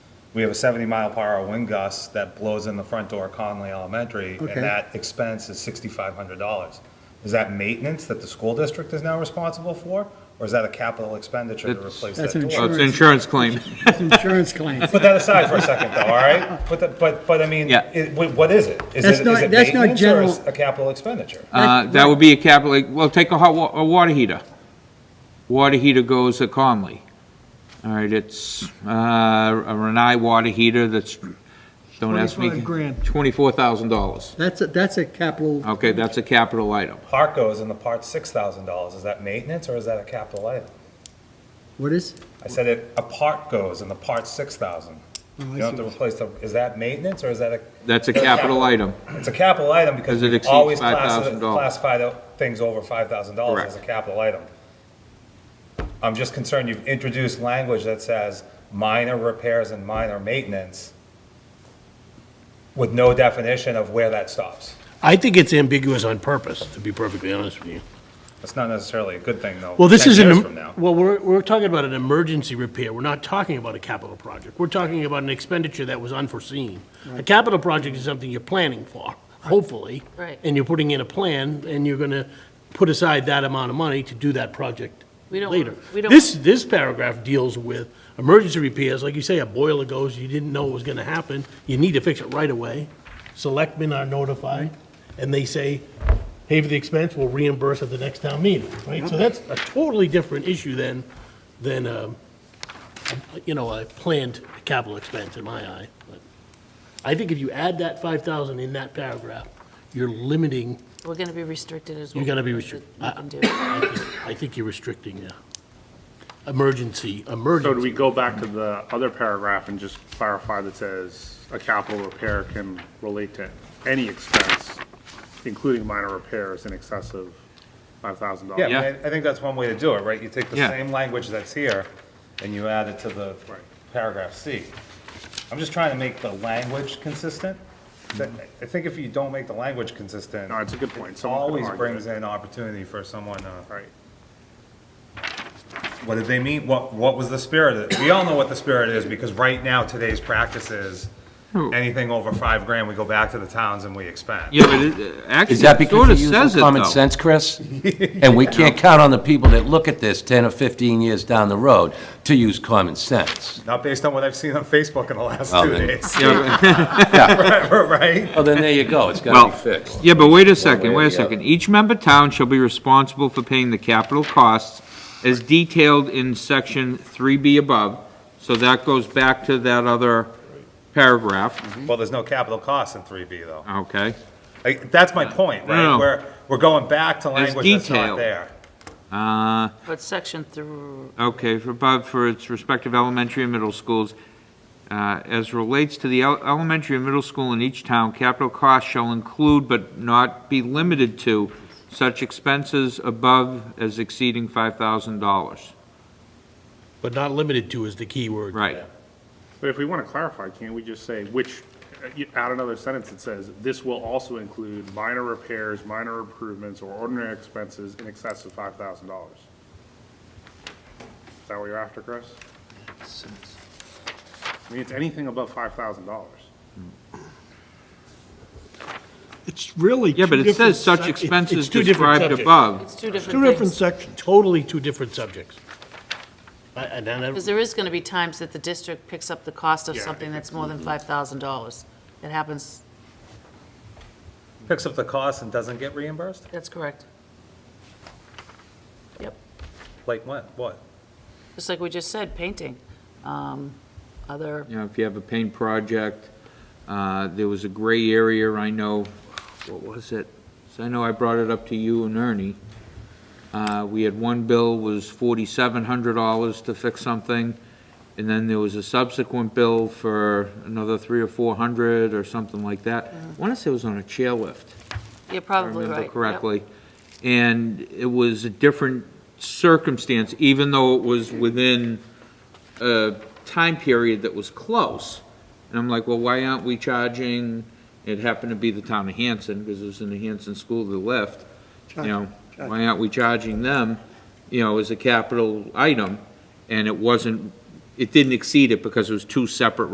we have a 70 mile per hour wind gust that blows in the front door of Conley Elementary, and Okay. that expense is $6,500. Is that maintenance that the school district is now responsible for, or is that a capital expenditure to It's- replace That's that door? insurance. Oh, it's an insurance claim. It's an insurance claim. Put that aside for a second, though, all right? Put that, but, but I mean, Yeah. it- wh- what is it? Is That's it- is not- it that's not maintenance or is general- A capital expenditure? Uh, That would be a capital, well, take a hot, wa- a water heater. Water heater goes at Conley. All right, it's uh, a Renai water heater that's, don't ask me. 25 grand. $24,000. That's a, that's a capital, Okay, that's a capital item. Parkos in the part $6,000, is that maintenance or is that a capital item? what is? I said it, a part goes and the part's 6,000. Oh, I You don't have see. to replace the, is that maintenance or is that a? That's a capital item. It's a capital item because Because it we exceeds always classi- $5,000. classify the things over five thousand dollars as a Correct. capital item. I'm just concerned you've introduced language that says minor repairs and minor maintenance with no definition of where that stops. I think it's ambiguous on purpose, to be perfectly honest with you. That's not necessarily a good thing, though. Well, this 10 is years from an, now. well, we're, we're talking about an emergency repair. We're not talking about a capital project. We're talking about an expenditure that was unforeseen. A capital project is something you're planning for, hopefully. Right. And you're putting in a plan, and you're gonna put aside that amount of money to do that project We don't later. want- we don't- This, this paragraph deals with emergency repairs, like you say, a boiler goes, you didn't know it was gonna happen, you need to fix it right away. Selectmen are notified, and they say, pay for the expense, we'll reimburse at the next town meeting, right? So that's a totally different issue than, than, um, you know, a planned capital expense in my eye. But I think if you add that five thousand in that paragraph, you're limiting, We're going to be restricted as well. You're gonna be restrict- We can do. I think- I think you're restricting, uh, emergency, emergency. So do we go back to the other paragraph and just clarify that says a capital repair can relate to any expense, including minor repairs in excess of five thousand dollars? Yeah, I mean, Yeah. I I think that's one way to do it, right? You take the Yeah. same language that's here and you add it to the paragraph C. I'm just trying to make the language consistent. That- I think if you don't make the language consistent. Mm-hmm. No, it's a good point. It Someone could always argue brings it. in opportunity for someone, uh, Right. what did they mean? What, what was the spirit of it? We all know what the spirit is because right now, today's practice is anything over five grand, we go back to the towns and we expand. Yeah, but it, uh, actually, Is that it because sort you of use says it, common though. sense, Chris? And we can't count on the people that look at this 10 or 15 years down the road to use common sense. Not based on what I've seen on Facebook in the last Well, two then- Mm-hmm. days, Yeah, but- right? Well, then there you go, it's Well, got to be fixed. Yeah, but wait a second, way or wait a the other. second. Each member town shall be responsible for paying the capital costs as detailed in section three B above. So that goes back to that other paragraph, Well, there's no capital cost in three B though. okay? Like, that's my point, No, no, right? no. Where we're going back to There's language that's not detail. there. Uh, But section through, okay, for above, for its respective elementary and middle schools. Uh, as relates to the el- elementary and middle school in each town, capital costs shall include but not be limited to such expenses above as exceeding five thousand dollars. But not limited to is the key word. Right. But if we want to clarify, can't we just say which, uh, you- add another sentence that says, this will also include minor repairs, minor improvements, or ordinary expenses in excess of five thousand dollars? Is that what you're after, Chris? I mean, it's anything above five thousand dollars. It's really Yeah, but two it different says such sec- it's- expenses it's two different described subjects. above. it's two different Two different things. sections. Totally two different subjects. I- I- and I- Because there is going to be times that the district picks up the cost of Yeah, I something think that's more than $5,000. It happens, Picks up the cost and doesn't get reimbursed? that's correct. Yep, Like when? What? just like we just said, painting, um, other, You know, if you have a paint project, uh, there was a gray area, I know, what was it? So I know I brought it up to you and Ernie. Uh, We had one bill was forty-seven hundred dollars to fix something, and then there was a subsequent bill for another three or four hundred or something like that. I want to say it was on a chairlift. you're I probably right. remember yep. correctly. And it was a different circumstance, even though it was within a time period that was close. And I'm like, well, why aren't we charging, it happened to be the town of Hanson, because it was in the Hanson school that left, you know, why aren't we charging them, you know, as a capital item? And it wasn't, it didn't exceed it because it was two separate